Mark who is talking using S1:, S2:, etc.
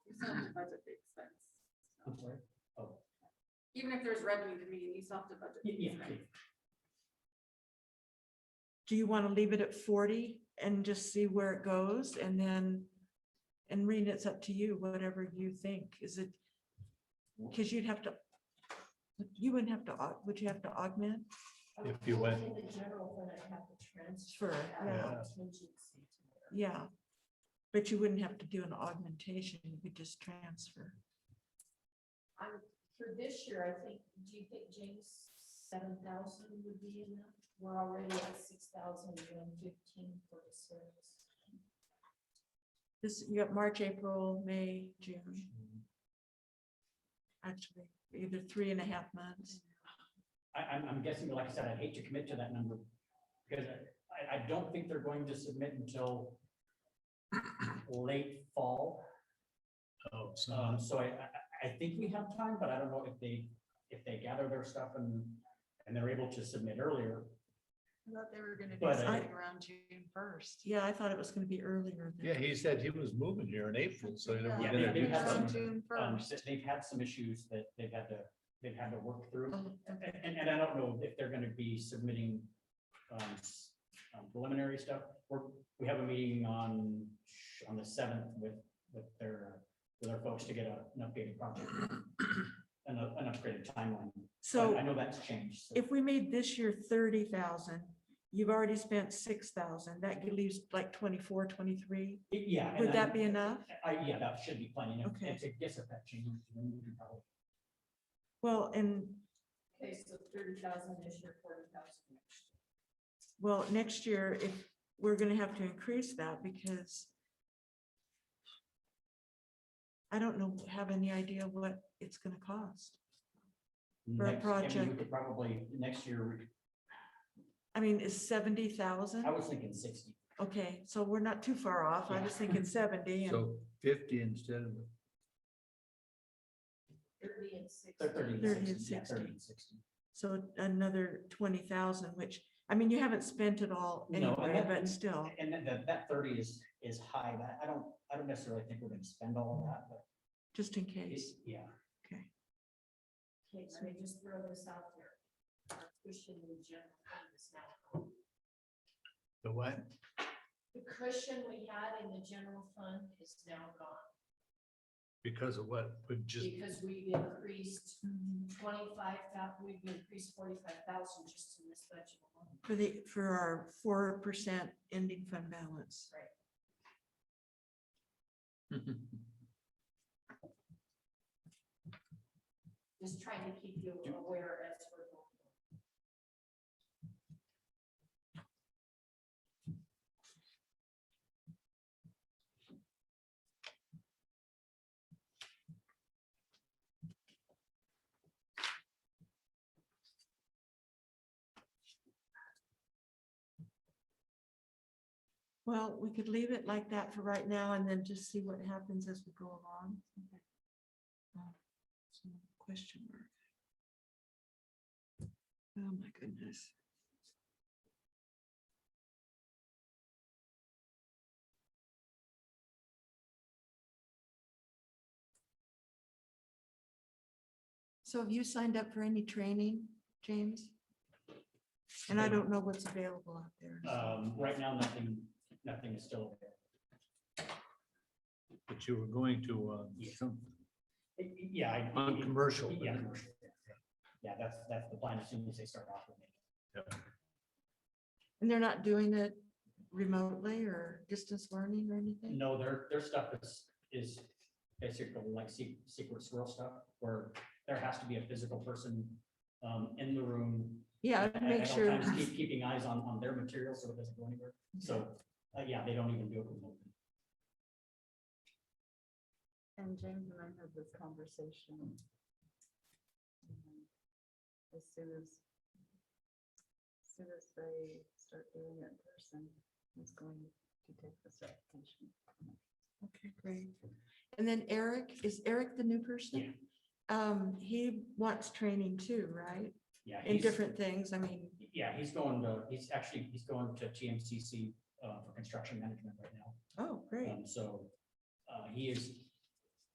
S1: still have to budget the expense.
S2: I'm sorry.
S1: Even if there's revenue to me, you still have to budget. the
S2: Yeah, yeah,
S1: expense.
S2: yeah.
S3: Do you want to leave it at forty and just see where it goes and then? And Rena, it's up to you, whatever you think. Is it? Because you'd have to. You wouldn't have to, au- would you have to augment?
S4: If you went.
S5: In the general fund, I have to transfer.
S3: Sure,
S5: out
S4: yeah.
S5: contingency to there.
S3: Yeah. But you wouldn't have to do an augmentation. You could just transfer.
S5: I'm, for this year, I think, do you think James, seven thousand would be enough? We're already at six thousand one fifteen for the service.
S3: This, you got March, April, May, June, actually, either three and a half months.
S2: I, I'm, I'm guessing, like I said, I'd hate to commit to that number because I, I don't think they're going to submit until late fall.
S4: Oh, so
S2: Um, so I, I, I think we have time, but I don't know if they, if they gather their stuff and, and they're able to submit earlier.
S6: I thought they were gonna
S2: But uh,
S6: do
S2: I-
S6: something around June first.
S3: Yeah, I thought it was gonna be earlier. than-
S4: Yeah, he said he was moving here in April, so. they were
S2: Yeah,
S4: gonna
S2: maybe
S4: do
S2: we have
S4: something.
S6: Around June
S2: Um,
S6: first.
S2: they've had some issues that they've had to, they've had to work through.
S3: Oh, okay.
S2: And, and I don't know if they're gonna be submitting um, s- um, preliminary stuff. We're, we have a meeting on, on the seventh with, with their, with our folks to get a- an updated project. An, up- an upgraded timeline. I-
S3: So.
S2: I know that's changed. so-
S3: if we made this year thirty thousand, you've already spent six thousand, that leaves like 24, 23.
S2: Yeah. and
S3: Would that
S2: I-
S3: be enough?
S2: I, yeah, that should be plenty. And
S3: Okay.
S2: It's a guess if that changes. then we can probably-
S3: Well, and,
S5: Okay, so thirty thousand this year, forty thousand next year.
S3: well, next year, if, we're gonna have to increase that because I don't know, have any idea what it's gonna cost. For
S2: next- I
S3: a
S2: mean, We
S3: project.
S2: could probably, next year, we could-
S3: I mean, is seventy thousand?
S2: I was thinking sixty.
S3: Okay, so we're not too far off. I was thinking seventy and
S4: So fifty instead of,
S5: Thirty and six.
S2: They're Thirty
S3: Thirty
S2: and
S3: and
S2: sixty. yeah,
S3: 60.
S2: thirty and sixty.
S3: so another twenty thousand, which, I mean, you haven't spent it all
S2: No, and
S3: anyway,
S2: that-
S3: but still.
S2: And then that, that thirty is, is high, but I don't, I don't necessarily think we're gonna spend all of that, but
S3: just in case.
S2: it's, yeah.
S3: Okay.
S5: Okay, let me just throw this out there. Our Cushion in the general fund is now.
S4: the what?
S5: The cushion we had in the general fund is now gone.
S4: Because of what? Would just,
S5: Because we've increased twenty-five thousand, we've increased forty-five thousand just in this budget alone.
S3: For the, for our four percent ending fund balance.
S5: Just trying to keep you aware as we're going.
S3: Well, we could leave it like that for right now and then just see what happens as we go along. Um, so, Question mark. Oh, my goodness. So have you signed up for any training, James? And I don't know what's available out there. so-
S2: Um, right now, nothing, nothing is still there.
S4: but you were going to, uh,
S2: Yeah.
S4: some,
S2: Yeah, I.
S4: on commercial. but-
S2: Yeah, commercial, yeah, yeah. Yeah, that's, that's the plan as soon as they start offering it.
S3: And they're not doing it remotely or distance learning or anything?
S2: No, their, their stuff is, is basically like se- secret squirrel stuff, where there has to be a physical person um, in the room.
S3: Yeah,
S2: at-
S3: I'd make
S2: at all
S3: sure,
S2: times, keep- Keeping eyes on, on their material so it doesn't go anywhere. So,
S3: Mm-hmm.
S2: uh, yeah, they don't even do it remotely.
S6: And James and I had this conversation. um, As soon as, as soon as they start doing it in person, it's going to take the certification.
S3: okay, great. And then Eric, is Eric the new person? Um, he wants training too, right?
S2: Yeah.
S3: In
S2: he's-
S3: different things, I mean,
S2: Yeah, he's going to, he's actually, he's going to TMCC uh, for construction management right now.
S3: oh, great,
S2: Um, So uh, he is,